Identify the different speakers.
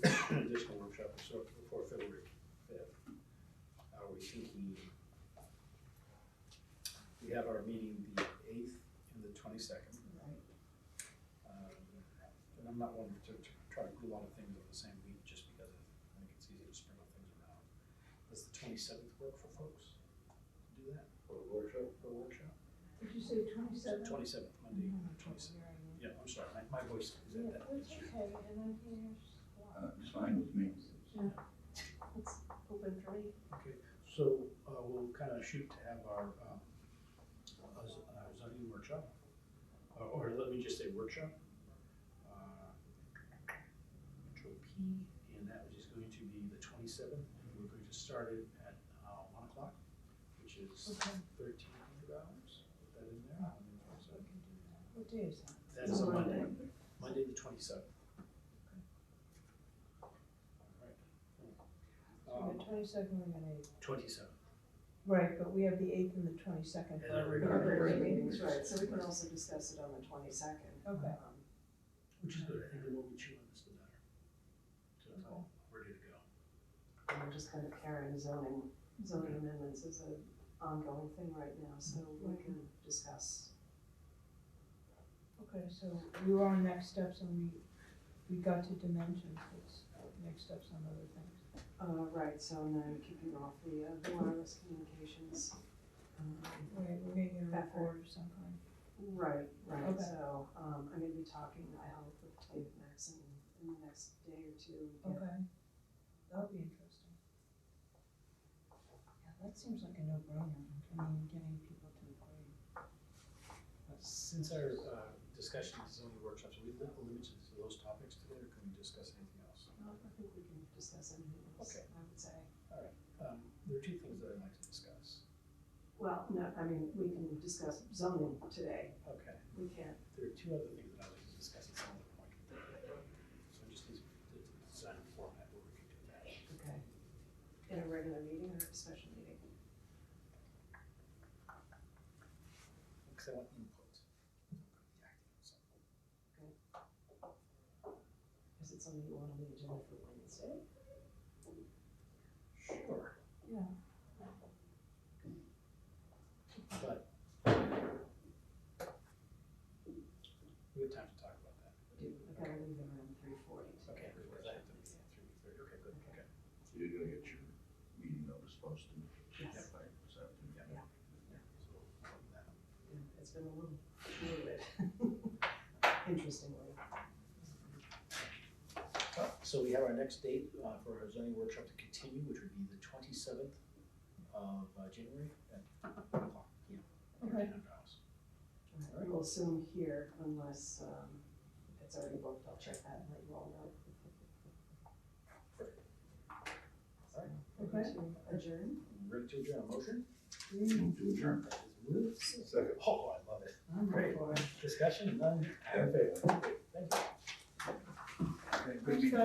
Speaker 1: have our meeting the eighth and the twenty-second. Uh,
Speaker 2: Right.
Speaker 1: And I'm not one to, to try to do a lot of things over the same week, just because I think it's easy to sprinkle things around. Does the twenty-seventh work for folks to do that,
Speaker 3: for the workshop.
Speaker 1: for a workshop?
Speaker 2: Did you say twenty-seven?
Speaker 1: Twenty-seventh, Monday, twenty-seventh, yeah, I'm sorry, my, my voice is
Speaker 2: Yeah,
Speaker 1: at that.
Speaker 2: it's okay, and I'm here,
Speaker 4: Uh, it's fine with me.
Speaker 2: it's open for me.
Speaker 1: Okay, so, uh, we'll kind of shoot to have our, um, uh, z- uh, zoning workshop, or, or let me just say workshop. uh, Control P, and that is going to be the twenty-seventh, and we're going to start it at, uh, one o'clock, which is
Speaker 2: Okay.
Speaker 1: thirteen hundred hours, put that in there. on the 27th.
Speaker 2: What day is that?
Speaker 1: That's a Monday, Monday the twenty-seventh. All
Speaker 2: So
Speaker 1: right. Um,
Speaker 2: the twenty-second, we're gonna,
Speaker 1: Twenty-seventh.
Speaker 2: right, but we have the eighth and the twenty-second.
Speaker 1: And then we're gonna-
Speaker 5: Regular meetings, right, so we can also discuss it on the twenty-second. Um,
Speaker 2: Okay.
Speaker 1: Which is good, I think the more we chew on this, the better. So, we're good to go.
Speaker 5: And we're just kind of carrying zoning, zoning amendments is an ongoing thing right now, so we can discuss.
Speaker 2: Okay, so we were on next steps and we, we got to dimensions, it's next steps on other things.
Speaker 5: Uh, right, so I'm now keeping off the uh, wireless communications. Um,
Speaker 2: Right, we're gonna get a
Speaker 5: That
Speaker 2: report of some kind.
Speaker 5: Right, right,
Speaker 2: Okay.
Speaker 5: so, um, I'm gonna be talking, I hope, with David Maxon in the next day or two. to get
Speaker 2: Okay. That'll be interesting. Yeah, that seems like a no-brainer, I mean, getting people to agree.
Speaker 1: Since our uh, discussion of zoning workshops, are we li- limited to those topics today, or can we discuss anything else?
Speaker 5: No, I think we can discuss anything else,
Speaker 1: Okay.
Speaker 5: I would say.
Speaker 1: Um, There are two things that I'd like to discuss.
Speaker 5: Well, no, I mean, we can discuss zoning today,
Speaker 1: Okay.
Speaker 5: we can't,
Speaker 1: There are two other things that I'd like to discuss at some other point. So just these, the the design and format, where we can do that.
Speaker 5: okay, in a regular meeting or a special meeting.
Speaker 1: Because I want input. So,
Speaker 5: Is it something you want on the agenda for Wednesday?
Speaker 1: Sure,
Speaker 2: Yeah.
Speaker 1: but we have time to talk about that.
Speaker 5: Do, I gotta leave around three forty
Speaker 1: Okay,
Speaker 5: today.
Speaker 1: because I have to be at three thirty, okay, good, okay.
Speaker 4: You're gonna get your meeting notice posted.
Speaker 5: Yes.
Speaker 4: By this afternoon.
Speaker 5: Yeah, It's been a little fluid, interestingly.
Speaker 1: So we have our next date uh, for our zoning workshop to continue, which would be the twenty-seventh of uh, January at one o'clock P M.
Speaker 2: Okay.
Speaker 5: All right, We'll assume here unless, um, it's already booked, I'll check that and let you all know. So, we're going to adjourn.
Speaker 1: Ready to adjourn, a motion?
Speaker 4: Move to adjourn.
Speaker 1: That is moved.
Speaker 3: Second.
Speaker 1: Oh, I love it.
Speaker 5: I'm
Speaker 1: Great. Discussion, none, all in favor? Thank you.
Speaker 4: Okay, good meeting.